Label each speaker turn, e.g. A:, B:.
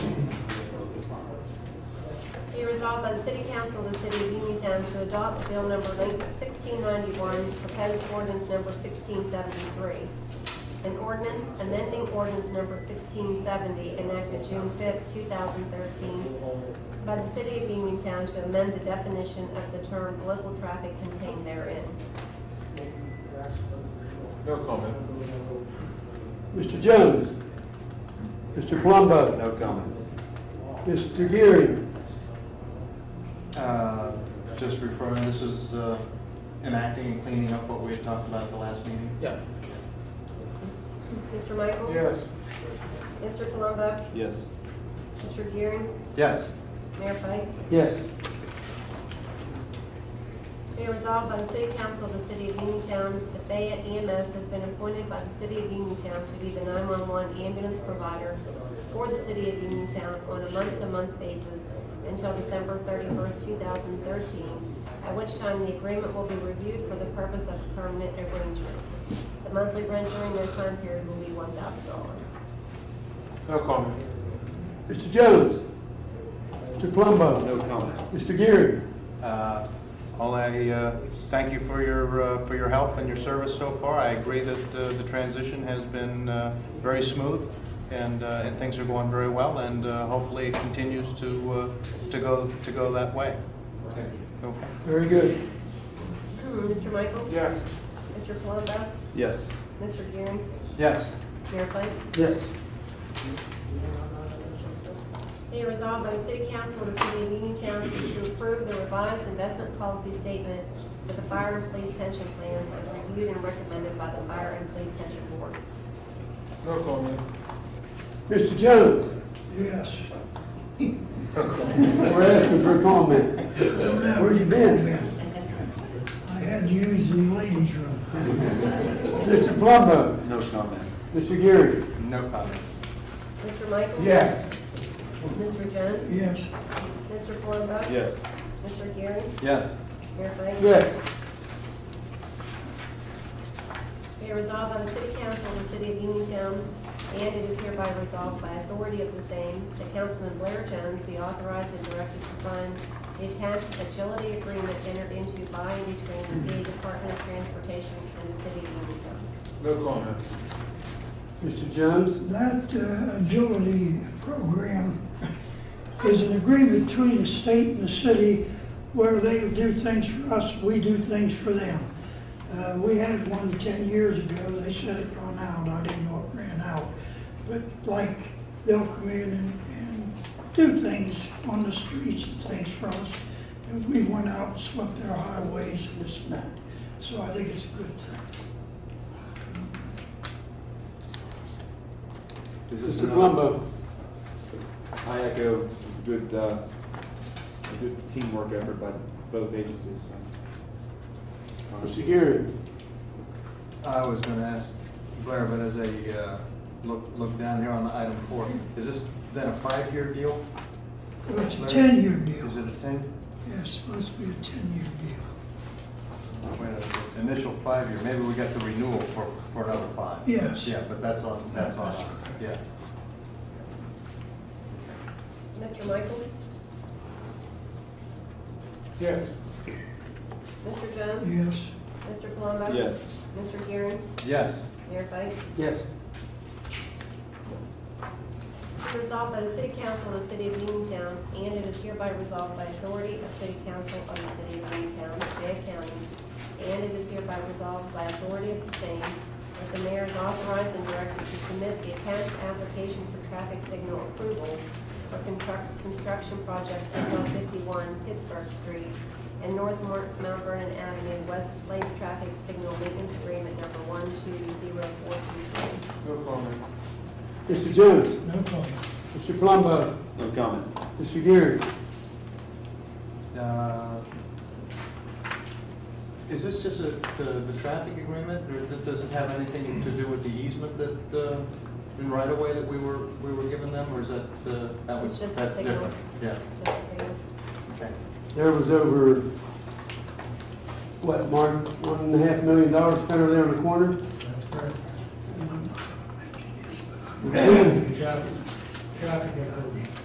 A: Be resolved by the City Council of the City of Uniontown to adopt Bill Number 1691, proposed ordinance Number 1673, an ordinance amending ordinance Number 1670 enacted June 5, 2013, by the City of Uniontown to amend the definition of the term "local traffic" contained therein.
B: No comment.
C: Mr. Jones? Mr. Palumbo?
D: No comment.
C: Mr. Geary?
D: Uh, Just referring, this is uh, enacting and cleaning up what we had talked about at the last meeting.
B: Yeah.
A: Mr. Michael? Mr. Palumbo?
D: Yes.
A: Mr. Gearing?
D: Yes.
A: Mayor Pike?
C: Yes.
A: Be resolved by the City Council of the City of Uniontown, the Fayette EMS E has been appointed by the City of Uniontown to be the 911 ambulance provider for the City of Uniontown on a month-to-month basis until December 31st, 2013, at which time the agreement will be reviewed for the purpose of a permanent arrangement. The monthly rent during that time period will be $1,000.
B: No comment.
C: Mr. Jones? Mr. Palumbo?
D: No comment.
C: Mr. Geary?
D: Uh, All I, uh, thank you for your, uh, for your help and your service so far. I agree that uh, the transition has been uh, very smooth and, uh, and things are going very well and uh, hopefully it continues to, uh, to go, to go that way. Okay.
C: Very good.
A: Mr. Michael?
B: Yes.
A: Mr. Palumbo?
D: Yes.
A: Mr. Gearing?
D: Yes.
A: Mayor Pike?
C: Yes.
A: Be it resolved by the City Council of the City of Uniontown to approve the revised investment policy statement for the fire and police pension plans as reviewed and recommended by the Fire and Police Pension Board.
B: No comment.
C: Mr. Jones?
E: Yes.
C: We're asking for a comment. Where you been?
E: I had to use the ladies' room.
C: Mr. Palumbo?
D: No comment.
C: Mr. Geary?
D: No comment.
A: Mr. Michael?
E: Yes.
A: Mr. Jones?
E: Yes.
A: Mr. Palumbo?
D: Yes.
A: Mr. Gearing?
D: Yes.
A: Mayor Pike?
C: Yes.
A: Be it resolved by the City Council of the City of Uniontown, and it is hereby resolved by authority of the same, that Councilman Blair Jones be authorized and directed to sign the tax agility agreement entered into by and between the City Department of Transportation and the City of Uniontown.
B: No comment.
C: Mr. Jones?
E: That uh, agility program is an agreement between the state and the city where they do things for us, we do things for them. Uh, We had one 10 years ago, they said it ran out, I didn't know it ran out. But like, they'll come in and and do things on the streets and things for us. And we went out and swept their highways and this and that. So I think it's a good thing.
F: Is this
C: Mr.
F: another?
C: Palumbo?
F: I echo, it's a good, uh, a good teamwork effort by both agencies.
C: Mr. Geary?
D: I was going to ask Blair, but as I uh, look, look down here on item four, is this then a five-year deal?
E: Well, It's a ten-year deal.
D: Is it a ten?
E: Yeah, it's supposed to be a ten-year deal.
D: Wait, uh, Initial five-year, maybe we got the renewal for, for another five.
E: Yes.
D: Yeah, but that's on, that's on, us. yeah.
A: Mr. Michael?
B: Yes.
A: Mr. Jones?
E: Yes,
A: Mr. Palumbo?
F: Yes.
A: Mr. Gearing?
D: Yes.
A: Mayor Pike?
C: Yes.
A: Resolved by the City Council of the City of Uniontown, and it is hereby resolved by authority of City Council of the City of Uniontown, Fayette County, and it is hereby resolved by authority of the same, that the mayor is authorized and directed to submit the attached application for traffic signal approval for construct- construction project at 151 Pittsburgh Street and North Mount Mount Vernon Avenue, West Lake Traffic Signal Maintenance Agreement Number 120423.
B: No comment.
C: Mr. Jones?
E: no problem.
C: Mr. Palumbo?
F: No comment.
C: Mr. Geary?
D: Uh, Is this just a, the, the traffic agreement, or that doesn't have anything to do with the easement that, uh, in right-of-way that we were, we were giving them, or is that, uh, that
A: It's
D: was,
A: just a
D: that's
A: signal.
D: different? Yeah,
A: Just so you know.
D: okay.
C: There was over, what, Mark, one and a half million dollars spent over there in the corner?
G: That's correct.
E: I'm not gonna mention this, but
G: Traffic, traffic,
E: I'm-